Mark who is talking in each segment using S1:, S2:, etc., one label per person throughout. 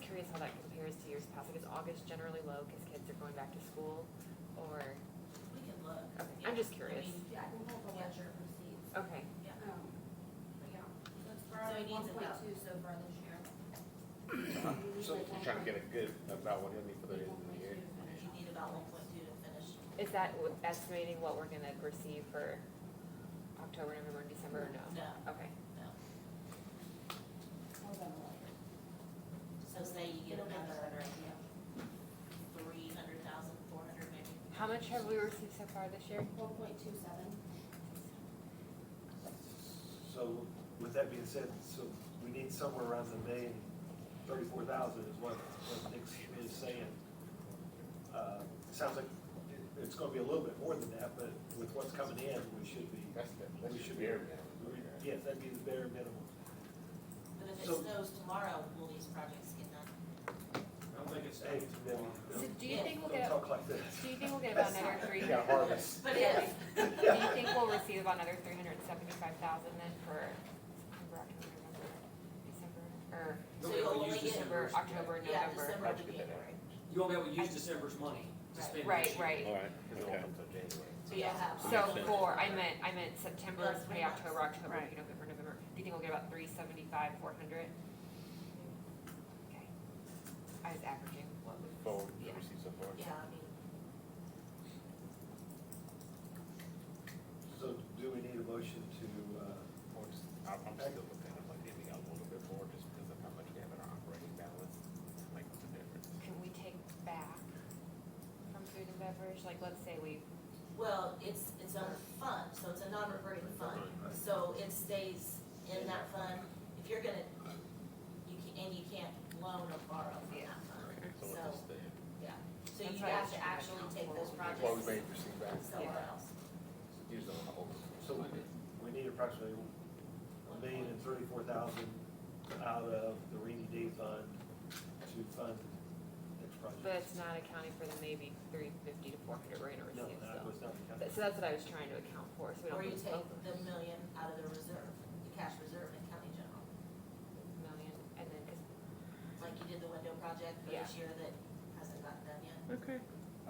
S1: curious how that compares to years past, like is August generally low because kids are going back to school? Or,
S2: We can look.
S1: okay,
S2: Yeah.
S1: I'm just
S2: I
S1: curious.
S2: mean,
S3: Yeah, we'll hold the ledger receipts.
S1: Okay,
S3: Um, but yeah, that's
S2: So he
S3: probably
S2: needs
S3: one
S2: it
S3: point
S2: up.
S3: two so far this year.
S4: So I'm trying to get a good about what he'll need for the end of the year.
S2: You need about one point two to finish.
S1: is that w- estimating what we're gonna receive for October, November, and December, or no?
S2: No,
S1: Okay,
S2: no. So say you get another three hundred thousand, four hundred maybe.
S1: how much have we received so far this year?
S3: One point two seven.
S5: So with that being said, so we need somewhere around the million, thirty-four thousand is what, what Nick's is saying. Uh, it Sounds like it- it's gonna be a little bit more than that, but with what's coming in, we should be,
S4: That's the,
S5: We
S4: that's your
S5: should
S4: bare
S5: be-
S4: minimum. right?
S5: yes, that'd be the bare minimum.
S2: But if it
S5: So-
S2: snows tomorrow, will these projects get done?
S6: I don't think it's
S5: Hey,
S6: eight.
S5: then
S1: So
S5: don't-
S1: do you think we'll
S5: Don't
S1: get, a-
S5: talk like this.
S1: do you think we'll get about another three?
S4: You got harvest.
S2: But
S1: if- Do
S5: Yeah.
S1: you think we'll receive about another three hundred and seventy-five thousand then for September, October, November, December, or
S2: So you'll
S6: Nobody will
S2: only
S6: use
S2: get-
S1: December,
S6: December's-
S1: October,
S2: Yeah,
S1: November?
S2: December to
S4: Budget that.
S2: January.
S6: You won't be able to use December's money to
S2: Right.
S6: spend
S1: Right,
S6: next year.
S1: right.
S4: All right,
S5: Because it won't
S4: okay.
S5: come till January.
S2: So you'll have.
S1: So for, I meant, I meant September,
S2: Those three
S1: maybe
S2: months.
S1: October, October, November, November. Do you think we'll get about three seventy-five, four hundred? Okay. I was averaging what we.
S4: Forward,
S1: Yeah.
S4: received so far.
S2: Yeah, I mean,
S5: So do we need a motion to, uh,
S4: Or just- I'm, I'm still looking, I'm like, maybe a little bit more just because of how much we have in our operating balance, like what's the difference?
S1: Can we take back from food and beverage? Like, let's say we,
S2: well, it's, it's a fund, so it's a non-reverting fund. So it stays in that fund. If you're gonna, you can, and you can't loan or borrow from
S1: Yeah.
S2: that fund.
S4: Okay, So
S2: So-
S4: what's the,
S2: So
S1: That's
S2: you
S1: right.
S2: have to actually take those
S4: that's why we
S2: projects
S4: made receive back,
S2: somewhere else.
S4: use the whole.
S5: So we did. we need approximately a million and thirty-four thousand out of the rainy day fund to fund next project?
S1: but it's not accounting for the maybe three fifty to four hundred we're gonna
S5: No,
S1: receive,
S5: that
S1: so.
S5: was not
S1: But-
S5: counted.
S1: So that's what I was trying to account for, so we
S2: Or
S1: don't
S2: you
S1: lose
S2: take
S1: both
S2: the million out of the reserve, the cash reserve in county general,
S1: million, and then, cause.
S2: like you did the window project for this year that hasn't gotten done yet.
S1: Okay.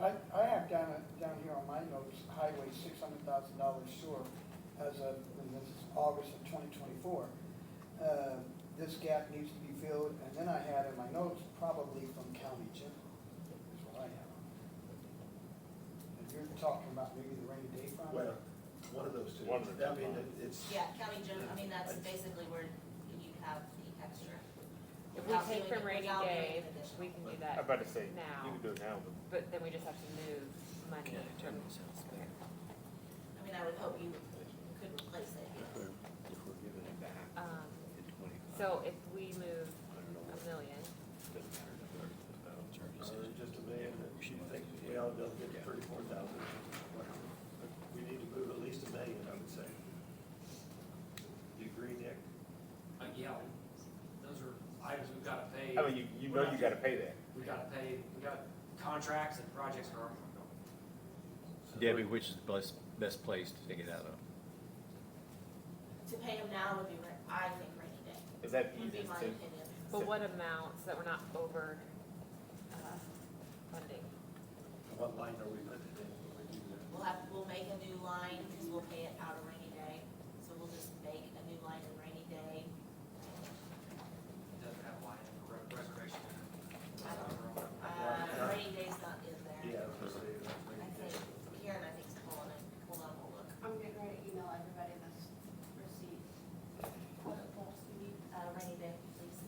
S7: I, I have down, down here on my notes, highway six hundred thousand dollars short as of, and this is August of twenty twenty-four. Uh, This gap needs to be filled, and then I had in my notes, probably from county general, is what I have. And you're talking about maybe the rainy day fund?
S5: Well, uh, one of those two.
S4: One of the two
S5: I mean,
S4: funds.
S5: it's,
S2: Yeah, county general, I mean, that's basically where you have the extra.
S1: If we
S2: without
S1: take
S2: doing-
S1: from rainy
S2: without doing
S1: day,
S2: an additional.
S1: we can do
S4: I'm
S1: that
S4: about to say, you
S1: now,
S4: can do it now, but
S1: but then we just have to move money from. Okay.
S2: I mean, I would hope you could replace it.
S8: If we're giving it back
S1: Um,
S8: at twenty-five, I
S1: so if we move
S8: don't know what
S1: a million,
S8: it doesn't matter to the
S5: uh,
S8: charges
S5: just a million, that you think we ought to get thirty-four thousand. We need to move at least a million, I would say. Do you agree, Nick?
S6: Uh, yeah, those are items we've gotta pay.
S4: I mean, you, you know you gotta pay that.
S6: We gotta pay, we got contracts and projects are already going.
S8: Debbie, which is the best, best place to take it out of?
S2: To pay them now would be, ra- I think, rainy day,
S4: Is that
S2: would
S4: easy
S2: be my
S4: to,
S2: opinion.
S1: but what amount, so that we're not over, uh, funding?
S5: What line are we putting it in when we do that?
S2: We'll have, we'll make a new line, because we'll pay it out of rainy day, so we'll just make a new line in rainy day.
S6: It doesn't have a line for re- reservation.
S2: I Uh,
S6: Well,
S2: rainy day's not in there.
S5: Yeah, I would say that's
S2: I
S5: maybe-
S2: think Karen, I think's calling it, hold on, we'll look.
S3: I'm getting ready to email everybody this receipt. What it was, you need.
S2: Uh, rainy day, please,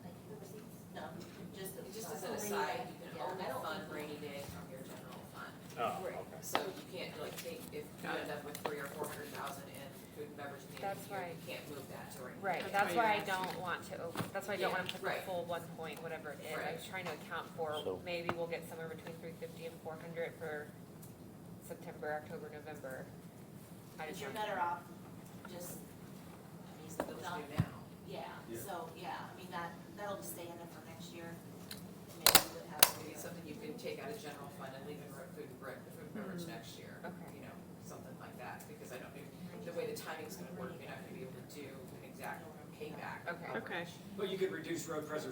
S2: thank you, the receipts? No, just.
S9: Just as an
S2: Rainy
S9: aside,
S2: day.
S9: you can
S2: Yeah,
S9: only
S2: I don't
S9: fund
S2: think-
S9: rainy day from your general fund.
S4: oh,
S1: Right.
S4: okay.
S9: So you can't like take, if you end up with three or four hundred thousand in food and beverage at the end of
S1: That's
S9: the year,
S1: right.
S9: you can't move that to rainy.
S1: Right,
S9: day.
S1: that's why I don't want to, over- that's why I don't wanna
S9: Yeah,
S1: put the
S9: right.
S1: full one point, whatever it is, I was trying to account for,
S8: So-
S1: maybe we'll get somewhere between three fifty and four hundred for September, October, November. I
S2: But
S1: just
S2: you're
S1: want-
S2: better off just, I mean,
S9: Those
S2: not-
S9: do now.
S2: yeah,
S5: Yeah.
S2: so, yeah, I mean, that, that'll just stay in there for next year. Maybe we'll have to
S9: Maybe something you can take out of general fund and leave in re- food and bre- food and beverage next year.
S1: Okay.
S9: You know, something like that, because I don't think, the way the timing's gonna work, you're not gonna be able to do an exact payback.
S1: Okay.
S9: Okay.
S6: But you could reduce road preservation